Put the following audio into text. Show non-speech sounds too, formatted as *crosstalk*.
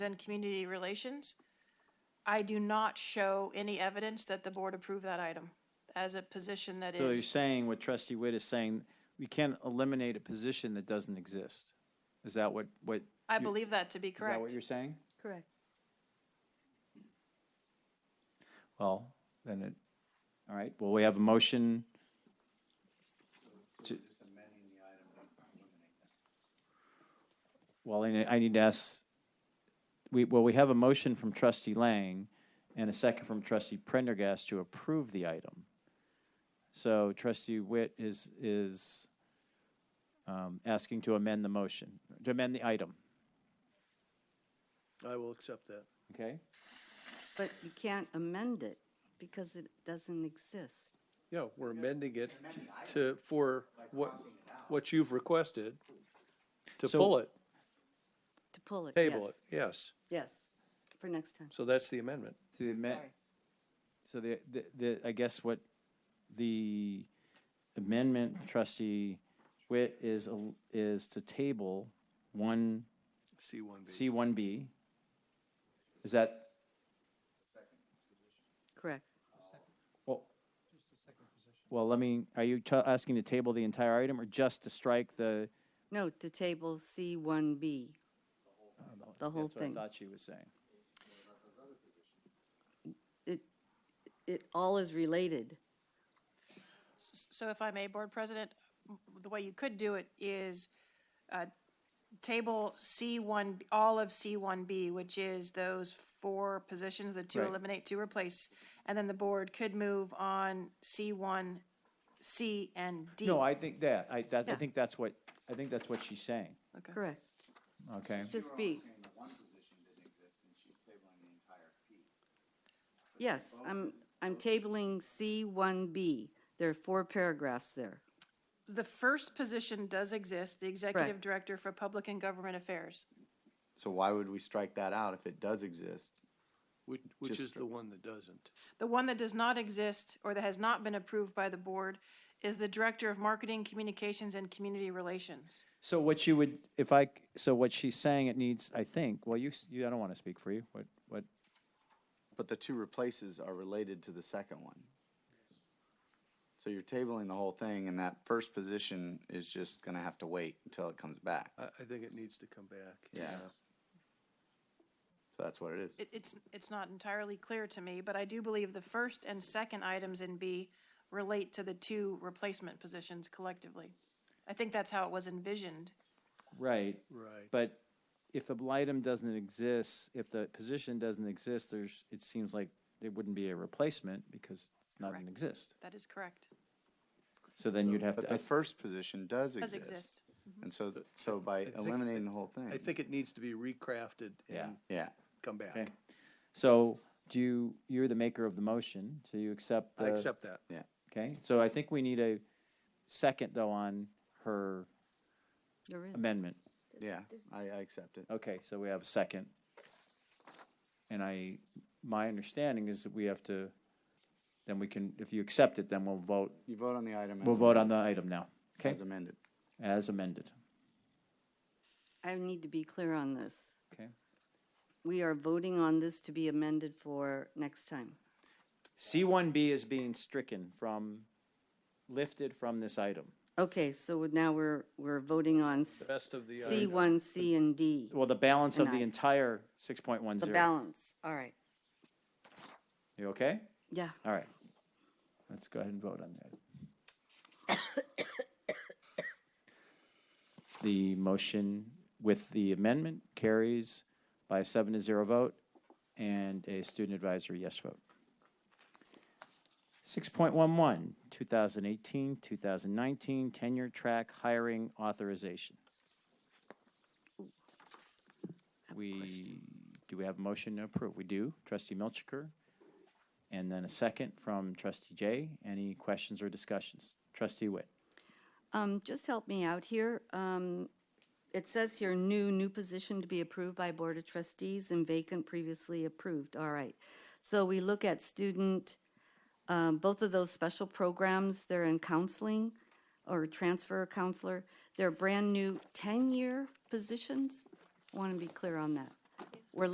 and Community Relations. I do not show any evidence that the board approved that item as a position that So you're is, saying, what trustee Witt is saying, we can't eliminate a position that doesn't exist? Is that what, what? is I believe that to be that what correct. you're saying? Correct. Well, then it, all right, well, we have a motion. to- Well, I ne- I need to ask, we, well, we have a motion from trustee Lang and a second from trustee Prendergast to approve the item. So trustee Witt is, is um, asking to amend the motion, to amend the item, I will accept that. okay? But you can't amend it because it doesn't exist. Yeah, we're amending it to, for what, what you've requested, to So- pull it, To pull it, yes. table it, yes. Yes, for next time. So that's the amendment. To amend, Sorry. So the, the, the, I guess what the amendment trustee Witt is, a- is to table one, C one B. C one B. Is that, Correct. well, well, let me, are you ta- asking to table the entire item or just to strike the? No, to table C1B. The whole That's what I thing. thought she was saying. It all is related. S- So if I may, Board President, m- the way you could do it is uh, table C1, all of C1B, which is those four positions, the two Right. eliminate, two replace, and then the board could move on C1, C, and D. No, I think that, I, that, I Yeah. think that's what, I think that's what she's saying, Okay. Correct. okay? Just B. Yes, I'm, I'm tabling C1B. There are four paragraphs there. The first position does exist, the Executive Director for Public and Government Affairs. So why would we strike that out if it does exist? Which, which Just is the one that doesn't. The one that does not exist or that has not been approved by the board is the Director of Marketing, Communications, and Community Relations. So what you would, if I, c- so what she's saying, it needs, I think, well, you, s- you, I don't want to speak for you, what, what? But the two replaces are related to the second one. So you're tabling the whole thing and that first position is just gonna have to wait until it comes back. Uh, I, I think it needs to come back. Yeah. So that's what it is. It, it's, it's not entirely clear to me, but I do believe the first and second items in B relate to the two replacement positions collectively. I think that's how it was envisioned. Right, Right. but if the blightum doesn't exist, if the position doesn't exist, there's, it seems like there wouldn't be a replacement because it's not Correct. an exist. That is correct. So then you'd have But to, the I- first position does Does exist. exist. And so, so by think- eliminating the whole thing. I think it needs to be recrafted Yeah. and Yeah, come okay. back. So do you, you're the maker of the motion, so you accept I the- accept that. Okay, so I think we need a second though on her There is. amendment. yeah, I, I accept it. Okay, so we have a second. And I, my understanding is that we have to, then we can, if you accept it, then we'll vote, You vote on the item. as we'll vote on amended- the item now, okay? As amended. As amended, I need to be clear on this. okay? We are voting on this to be amended for next time. C1B is being stricken from, lifted from this item. Okay, so now we're, we're voting on The Uh, rest of the, item. C1, C, and D. Well, the balance of the Denied. entire The 6.10. balance, all right. You okay? Yeah, All right. Let's go ahead and vote on that. *coughs* The motion with the amendment carries by a seven to zero vote and a student advisory yes vote. 6.11, 2018, 2019 tenure track hiring authorization. We, do we have a motion to approve? We do. Trustee Milchiker. And then a second from trustee Jay. Any questions or discussions? Trustee Witt. um, just help me out here. Um, it says here, new, new position to be approved by Board of Trustees and vacant previously approved, all right. So we look at student, um, both of those special programs, they're in counseling or transfer counselor. They're brand-new ten-year positions. Want to be clear on that.